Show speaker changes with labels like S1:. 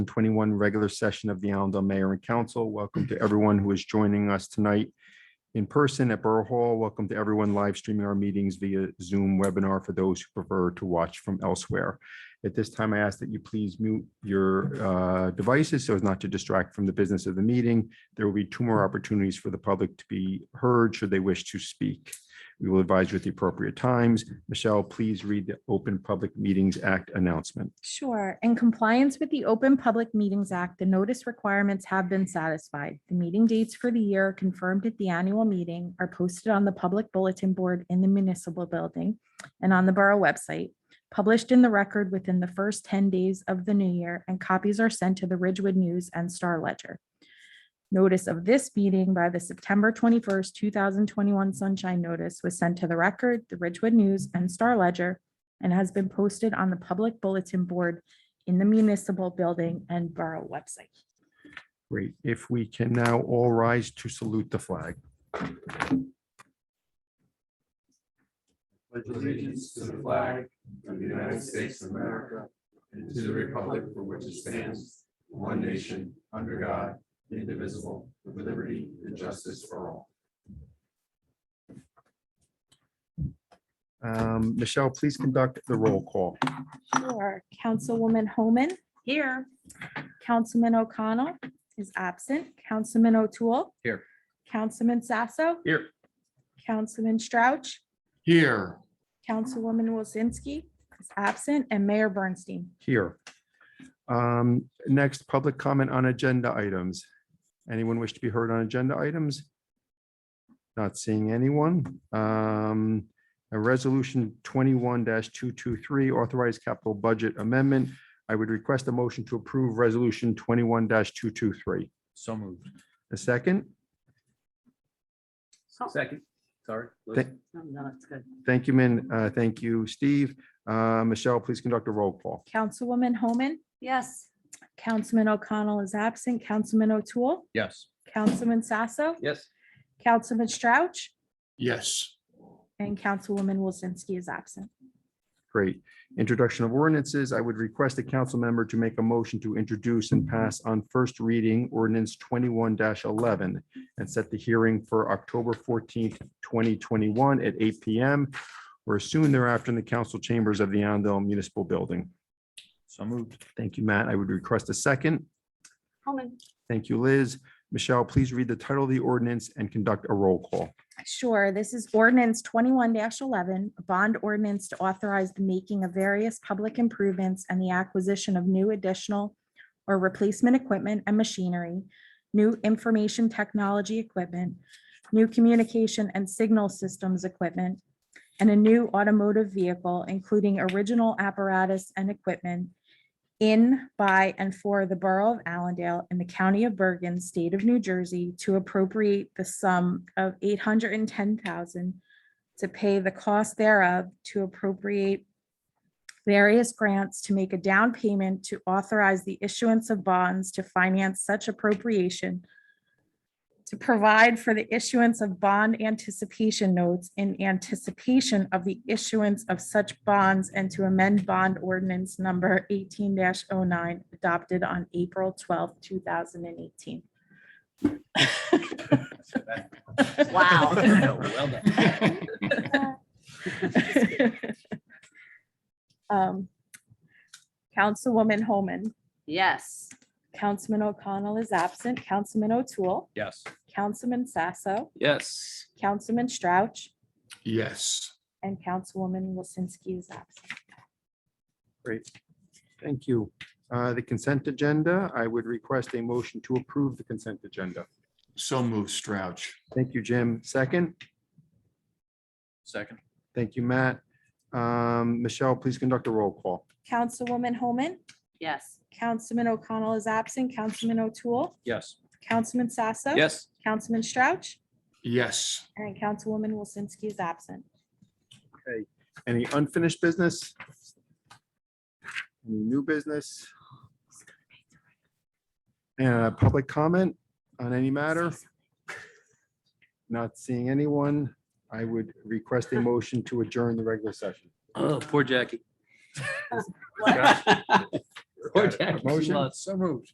S1: twenty-one regular session of the Allendale Mayor and Council. Welcome to everyone who is joining us tonight in person at Borough Hall. Welcome to everyone live streaming our meetings via Zoom webinar for those who prefer to watch from elsewhere. At this time, I ask that you please mute your uh, devices so as not to distract from the business of the meeting. There will be two more opportunities for the public to be heard should they wish to speak. We will advise you at the appropriate times. Michelle, please read the Open Public Meetings Act announcement.
S2: Sure. In compliance with the Open Public Meetings Act, the notice requirements have been satisfied. The meeting dates for the year confirmed at the annual meeting are posted on the public bulletin board in the municipal building and on the borough website, published in the record within the first 10 days of the new year, and copies are sent to the Ridgewood News and Star Ledger. Notice of this meeting by the September 21st, 2021 Sunshine Notice was sent to the record, the Ridgewood News and Star Ledger, and has been posted on the public bulletin board in the municipal building and borough website.
S1: Great. If we can now all rise to salute the flag.
S3: pledge allegiance to the flag of the United States of America and to the republic for which it stands, one nation, under God, indivisible, with liberty and justice for all.
S1: Um, Michelle, please conduct the roll call.
S2: Sure. Councilwoman Homan. Here. Councilman O'Connell is absent. Councilman O'Toole.
S1: Here.
S2: Councilman Sasso.
S1: Here.
S2: Councilman Strouch.
S3: Here.
S2: Councilwoman Wilsinski is absent, and Mayor Bernstein.
S1: Here. Um, Next, public comment on agenda items. Anyone wish to be heard on agenda items? Not seeing anyone. Um, A resolution twenty-one two-two-three, authorized capital budget amendment. I would request a motion to approve resolution twenty-one two-two-three.
S4: So moved.
S1: A second?
S4: Second, sorry.
S1: Th- Thank you, Min. Uh, Thank you, Steve. Uh, Michelle, please conduct a roll call.
S2: Councilwoman Homan.
S5: Yes.
S2: Councilman O'Connell is absent. Councilman O'Toole.
S4: Yes.
S2: Councilman Sasso.
S4: Yes.
S2: Councilman Strouch.
S3: Yes.
S2: And Councilwoman Wilsinski is absent.
S1: Great. Introduction of ordinances. I would request a council member to make a motion to introduce and pass on first reading ordinance twenty-one eleven and set the hearing for October fourteenth, twenty twenty-one at eight PM or soon thereafter in the council chambers of the Allendale Municipal Building.
S4: So moved.
S1: Thank you, Matt. I would request a second.
S5: Homan.
S1: Thank you, Liz. Michelle, please read the title of the ordinance and conduct a roll call.
S2: Sure, this is ordinance twenty-one eleven, a bond ordinance to authorize the making of various public improvements and the acquisition of new additional or replacement equipment and machinery, new information technology equipment, new communication and signal systems equipment, and a new automotive vehicle, including original apparatus and equipment in, by, and for the Borough of Allendale in the County of Bergen, State of New Jersey, to appropriate the sum of eight hundred and ten thousand to pay the cost thereof, to appropriate various grants, to make a down payment, to authorize the issuance of bonds to finance such appropriation, to provide for the issuance of bond anticipation notes in anticipation of the issuance of such bonds and to amend bond ordinance number eighteen 9 adopted on April twelfth, two thousand and eighteen.
S5: Wow.
S4: Well done.
S2: Um, Councilwoman Homan,
S5: Yes.
S2: Councilman O'Connell is absent, Councilman O'Toole,
S4: Yes.
S2: Councilman Sasso,
S4: Yes.
S2: Councilman Strouch,
S3: Yes.
S2: and Councilwoman Wilsinski is absent.
S1: Thank you. Uh, The consent agenda, I would request a motion to approve the consent agenda.
S3: So move Strouch.
S1: Thank you, Jim. Second,
S4: Second.
S1: thank you, Matt. Um, Michelle, please conduct a roll call.
S2: Councilwoman Homan,
S5: Yes.
S2: Councilman O'Connell is absent, Councilman O'Toole,
S4: Yes.
S2: Councilman Sasso.
S4: Yes.
S2: Councilman Strouch,
S3: Yes.
S2: and Councilwoman Wilsinski is absent.
S1: Any unfinished business? Any New business? Uh, Public comment on any matter? Not seeing anyone. I would request a motion to adjourn the regular session.
S4: Oh, poor Jackie. Corjac.
S1: Motion?
S4: So moved.